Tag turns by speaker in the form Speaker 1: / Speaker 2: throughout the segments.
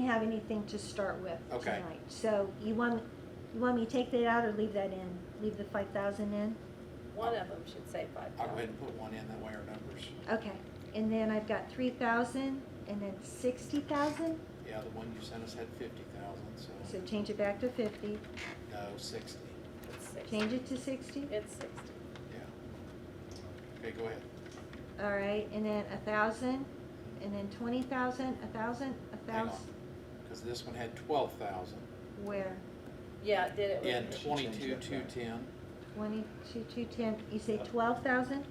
Speaker 1: have anything to start with
Speaker 2: Okay.
Speaker 1: tonight. So you want, you want me to take that out or leave that in? Leave the five thousand in?
Speaker 3: One of them should say five
Speaker 2: I'll go ahead
Speaker 3: thousand.
Speaker 2: and put one in, that way our numbers,
Speaker 1: Okay, and then I've got three thousand and then sixty thousand,
Speaker 2: yeah, the one you sent us had fifty thousand,
Speaker 1: so
Speaker 2: so,
Speaker 1: change it back to fifty,
Speaker 2: no, sixty,
Speaker 3: It's sixty.
Speaker 1: change it to sixty,
Speaker 3: It's sixty.
Speaker 2: yeah. Okay, go ahead.
Speaker 1: all right, and then a thousand, and then twenty thousand, a thousand, a
Speaker 2: Hang on.
Speaker 1: thousand,
Speaker 2: Because this one had twelve thousand,
Speaker 1: where?
Speaker 3: Yeah, it did it.
Speaker 2: in
Speaker 3: with-
Speaker 2: twenty-two, two ten,
Speaker 1: Twenty-two, two ten, you
Speaker 2: Uh,
Speaker 1: say twelve thousand?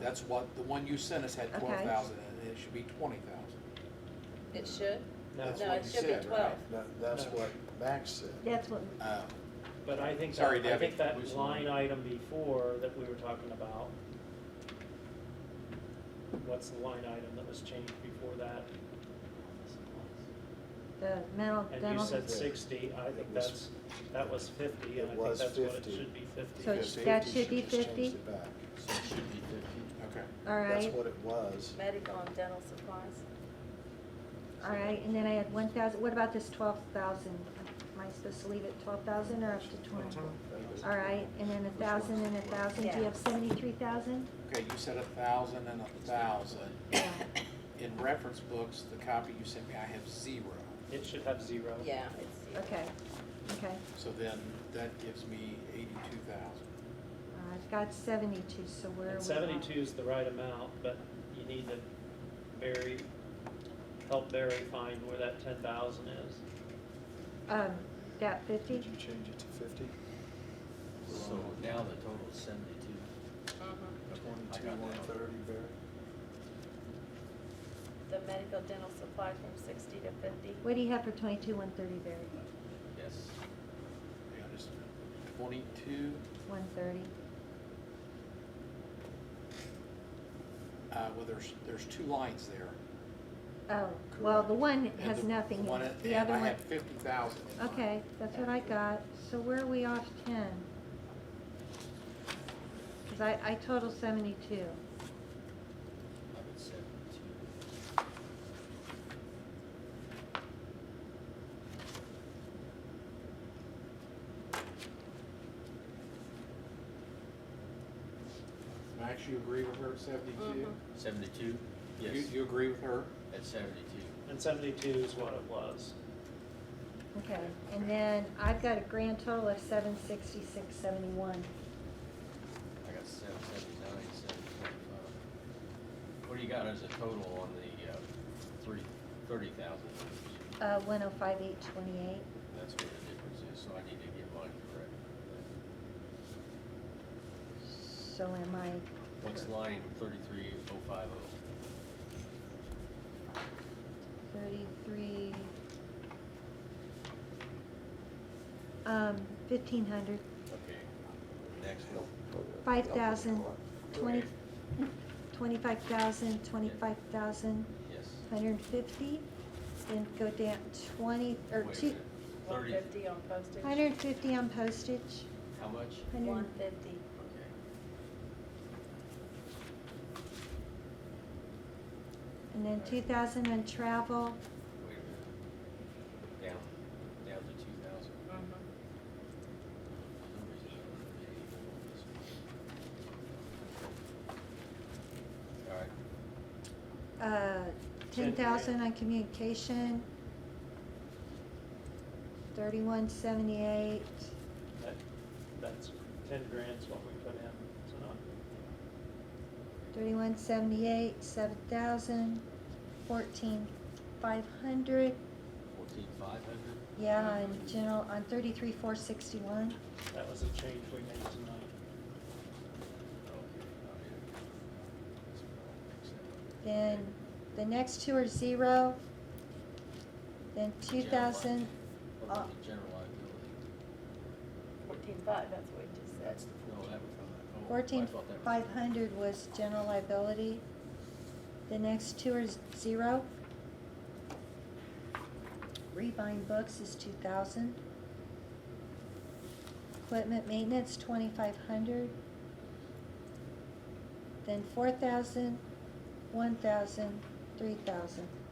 Speaker 2: that's what, the one you sent us had
Speaker 1: Okay.
Speaker 2: twelve thousand, and it should be twenty thousand.
Speaker 3: It should?
Speaker 4: No,
Speaker 2: That's
Speaker 3: No,
Speaker 2: what
Speaker 3: it
Speaker 2: you
Speaker 3: should be
Speaker 2: said, right?
Speaker 3: 12.
Speaker 5: That, that's
Speaker 4: No.
Speaker 5: what Max said.
Speaker 1: That's what,
Speaker 2: Uh,
Speaker 4: but I think,
Speaker 2: Sorry,
Speaker 4: that- I
Speaker 2: Debbie.
Speaker 4: think
Speaker 2: Lose
Speaker 4: that
Speaker 2: the
Speaker 4: line
Speaker 2: line.
Speaker 4: item before that we were talking about, what's the line item that was changed before that?
Speaker 1: the mental,
Speaker 4: And you
Speaker 1: dental,
Speaker 4: said sixty, I think
Speaker 5: It was-
Speaker 4: that's, that was
Speaker 5: It
Speaker 4: fifty, and I think
Speaker 5: was
Speaker 4: that's what it
Speaker 5: 50.
Speaker 4: should be fifty.
Speaker 1: So
Speaker 5: Yeah,
Speaker 1: it's- that
Speaker 5: 50,
Speaker 1: should be
Speaker 5: she just changed
Speaker 1: 50?
Speaker 5: it back.
Speaker 6: So it should be fifty.
Speaker 2: okay,
Speaker 1: all
Speaker 5: That's
Speaker 1: right,
Speaker 5: what it was.
Speaker 3: Medical and dental supplies.
Speaker 1: all right, and then I had one thousand, what about this twelve thousand? Am I supposed to leave it twelve thousand or up to twenty? All right, and then a thousand and a thousand, do you have seventy-three thousand?
Speaker 2: okay, you said a thousand and a thousand.
Speaker 1: Yeah.
Speaker 2: In reference books, the copy you sent me, I have zero,
Speaker 4: It should have zero.
Speaker 3: Yeah, it's.
Speaker 1: Okay, okay,
Speaker 2: so then that gives me eighty-two thousand.
Speaker 1: Uh, I've got seventy-two, so where are we?
Speaker 4: And
Speaker 1: at?
Speaker 4: seventy-two is the right amount, but you need to bury, help Barry find where that ten thousand is.
Speaker 1: Um, that fifty,
Speaker 5: Did you change it to fifty?
Speaker 6: So now the total is seventy-two.
Speaker 3: Mhm.
Speaker 5: Twenty-two, one thirty, Barry?
Speaker 3: The medical dental supplies from sixty to fifty.
Speaker 1: what do you have for twenty-two, one thirty, Barry?
Speaker 6: Yes.
Speaker 2: Yeah, just twenty-two,
Speaker 1: One thirty,
Speaker 2: uh, well, there's, there's two lines there.
Speaker 1: oh, well, the one
Speaker 2: and
Speaker 1: has
Speaker 2: the
Speaker 1: nothing,
Speaker 2: one-
Speaker 1: in it. the
Speaker 2: and
Speaker 1: other
Speaker 2: I
Speaker 1: one,
Speaker 2: had fifty thousand.
Speaker 1: okay, that's what I got, so where are we off ten? Cause I, I total seventy-two,
Speaker 6: I would seventy-two.
Speaker 2: Max, you agree with her at seventy-two?
Speaker 1: Mm-hmm.
Speaker 3: Mhm.
Speaker 6: Seventy-two?
Speaker 2: You,
Speaker 6: Yes,
Speaker 2: you agree with her?
Speaker 6: at seventy-two.
Speaker 4: And seventy-two is what it was.
Speaker 1: okay, and then I've got a grand total of seven sixty-six, seventy-one.
Speaker 6: I got seven seventy-nine, seven twenty-five. What do you got as a total on the, uh, three, thirty thousand?
Speaker 1: Uh, one oh five, eight twenty-eight.
Speaker 6: That's where the difference is, so I need to get mine correct.
Speaker 1: So am I,
Speaker 6: What's line thirty-three oh five oh?
Speaker 1: thirty-three, um, fifteen hundred,
Speaker 6: Okay, next one.
Speaker 1: five thousand, twenty,
Speaker 6: Okay.
Speaker 1: twenty-five thousand, twenty-five thousand,
Speaker 6: Yes.
Speaker 1: hundred and fifty. Then go down twenty, or
Speaker 6: Wait a
Speaker 1: two,
Speaker 6: minute.
Speaker 3: One
Speaker 6: Thirty,
Speaker 3: fifty on postage.
Speaker 1: hundred and fifty on postage,
Speaker 6: how much?
Speaker 1: hundred,
Speaker 3: One fifty.
Speaker 6: Okay.
Speaker 1: and then two thousand on travel,
Speaker 6: Wait a minute. Down, down to two thousand.
Speaker 3: Mm-hmm.
Speaker 6: All right,
Speaker 1: uh, ten thousand on communication. Thirty-one seventy-eight.
Speaker 4: That, that's ten grand's what we put in tonight.
Speaker 1: Thirty-one seventy-eight, seven thousand, fourteen five hundred,
Speaker 6: fourteen five hundred?
Speaker 1: yeah, on general, on thirty-three four sixty-one.
Speaker 4: That was a change we made tonight.
Speaker 1: Then the next two are zero. Then two thousand, uh,
Speaker 6: What about the general liability?
Speaker 3: Fourteen five, that's what we just said.
Speaker 5: That's the
Speaker 6: No, that
Speaker 5: fourteen.
Speaker 6: was not.
Speaker 1: fourteen
Speaker 6: oh, I thought that was-
Speaker 1: five hundred was general liability. The next two are zero. Rebuying books is two thousand. Equipment maintenance, twenty-five hundred. Then four thousand, one thousand, three thousand.